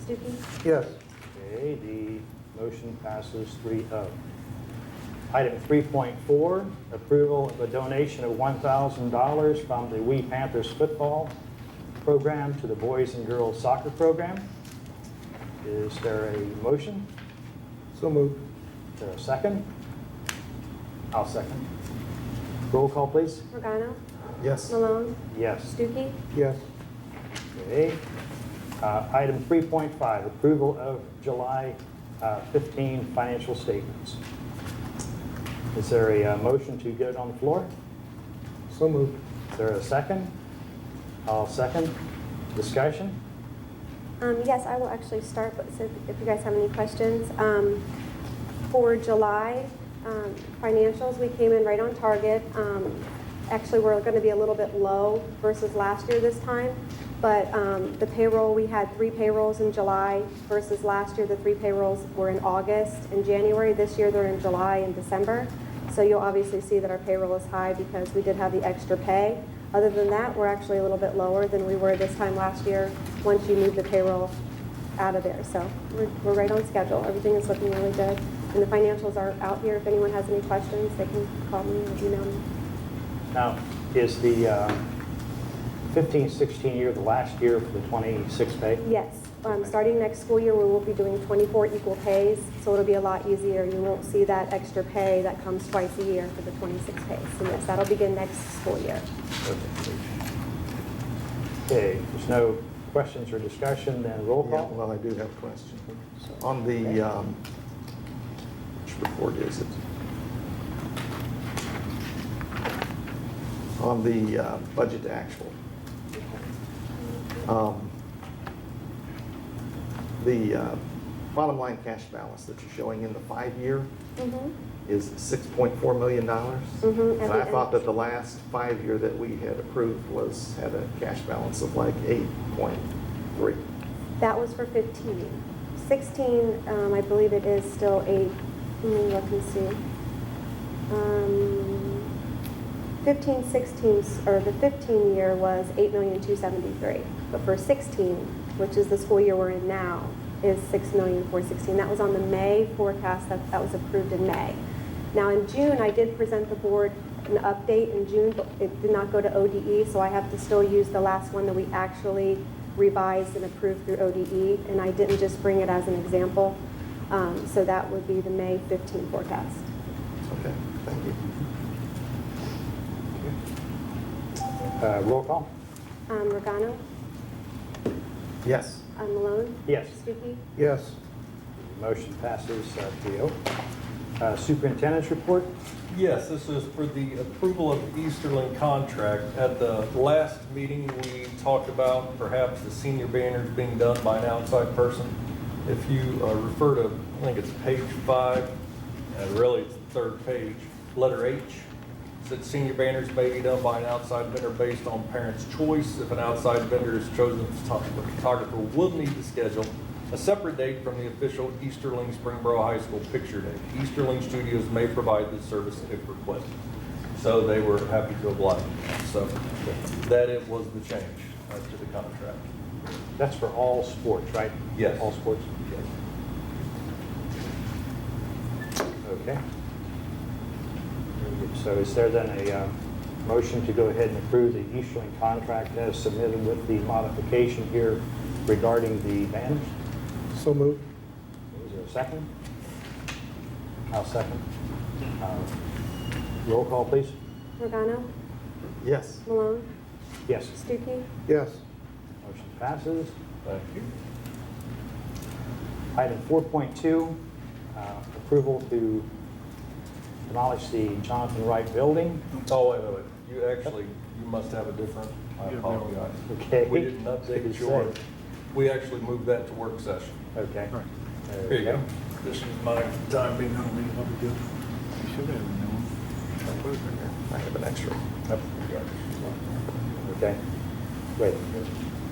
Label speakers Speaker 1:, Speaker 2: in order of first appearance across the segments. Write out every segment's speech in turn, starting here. Speaker 1: Stupi?
Speaker 2: Yes.
Speaker 3: Okay, the motion passes 3-0. Item 3.4, approval of a donation of $1,000 from the We Panthers football program to the Boys and Girls Soccer Program. Is there a motion?
Speaker 2: So moved.
Speaker 3: Is there a second? I'll second. Roll call, please.
Speaker 1: Regano?
Speaker 2: Yes.
Speaker 1: Malone?
Speaker 3: Yes.
Speaker 1: Stupi?
Speaker 2: Yes.
Speaker 3: Okay. Uh, Item 3.5, approval of July uh, 15 financial statements. Is there a uh, motion to get it on the floor?
Speaker 2: So moved.
Speaker 3: Is there a second? I'll second. Discussion?
Speaker 1: Um, yes, I will actually start, but so if you guys have any questions, um, for July, um, financials, we came in right on target. Um, actually, we're gonna be a little bit low versus last year this time, but, um, the payroll, we had three payrolls in July versus last year, the three payrolls were in August and January. This year, they're in July and December. So you'll obviously see that our payroll is high because we did have the extra pay. Other than that, we're actually a little bit lower than we were this time last year, once you move the payroll out of there. So we're, we're right on schedule. Everything is looking really good. And the financials are out here. If anyone has any questions, they can call me or email me.
Speaker 3: Now, is the uh, 15, 16 year the last year for the 26 pay?
Speaker 1: Yes, um, starting next school year, we will be doing 24 equal pays, so it'll be a lot easier. You won't see that extra pay that comes twice a year for the 26 pays. And yes, that'll begin next school year.
Speaker 3: Okay, there's no questions or discussion, then roll
Speaker 2: Yeah,
Speaker 3: call?
Speaker 2: well, I do have a question. On the, um, which report is it? On the uh, budget to actual. Um, The uh, bottom line cash balance that you're showing in the five-year
Speaker 1: Mhm.
Speaker 2: is $6.4 million.
Speaker 1: Mhm, at
Speaker 2: And
Speaker 1: the
Speaker 2: I
Speaker 1: end.
Speaker 2: thought that the last five-year that we had approved was, had a cash balance of like 8.3.
Speaker 1: That was for 15. 16, um, I believe it is still eight, let me look and see. Um, 15, 16, s- or the 15 year was 8,273,000, but for 16, which is the school year we're in now, is 6,416,000. That was on the May forecast, that, that was approved in May. Now, in June, I did present the board an update in June, but it did not go to ODE, so I have to still use the last one that we actually revised and approved through ODE, and I didn't just bring it as an example. Um, so that would be the May 15 forecast.
Speaker 2: Okay, thank you.
Speaker 3: Uh, Roll call?
Speaker 1: Um, Regano,
Speaker 2: Yes.
Speaker 1: um, Malone,
Speaker 3: Yes.
Speaker 1: Stuckey,
Speaker 2: Yes.
Speaker 3: Motion passes uh, 3-0. Uh, Superintendent's report,
Speaker 4: Yes, this is for the approval of the Easterling contract. At the last meeting, we talked about perhaps the senior banners being done by an outside person. If you uh, refer to, I think it's page five, and really it's the third page, letter H, said senior banners may be done by an outside vendor based on parents' choice. If an outside vendor is chosen, the photographer will need to schedule a separate date from the official Easterling Springboro High School picture day. Easterling Studios may provide this service if requested. So they were happy to oblige. So that it was the change uh, to the contract.
Speaker 3: that's for all sports, right?
Speaker 4: Yes.
Speaker 3: All sports? Okay. So is there then a uh, motion to go ahead and approve the Easterling contract as submitted with the modification here regarding the banners?
Speaker 2: So moved.
Speaker 3: Is there a second? I'll second. Uh, Roll call, please.
Speaker 1: Regano,
Speaker 2: Yes.
Speaker 1: Malone,
Speaker 3: Yes.
Speaker 1: Stuckey,
Speaker 2: Yes.
Speaker 3: Motion passes.
Speaker 4: Thank you.
Speaker 3: Item 4.2, uh, approval to demolish the Jonathan Wright Building.
Speaker 4: Oh, wait, wait, wait. You actually, you must have a different, I apologize.
Speaker 3: Okay.
Speaker 4: We didn't
Speaker 3: Good
Speaker 4: update yours. We actually moved that to work session.
Speaker 3: Okay.
Speaker 4: Here you go.
Speaker 5: This is my time being on me, I'll be good. You should have known.
Speaker 2: I have an extra.
Speaker 3: Yep. Okay. Great.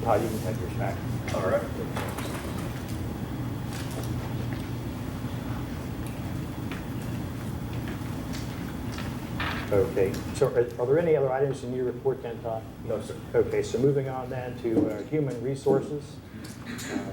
Speaker 3: Todd, you can have yours back.
Speaker 4: All right.
Speaker 3: Okay. So are are there any other items in your report then, Todd?
Speaker 4: No, sir.
Speaker 3: Okay, so moving on then to uh, human resources. Uh,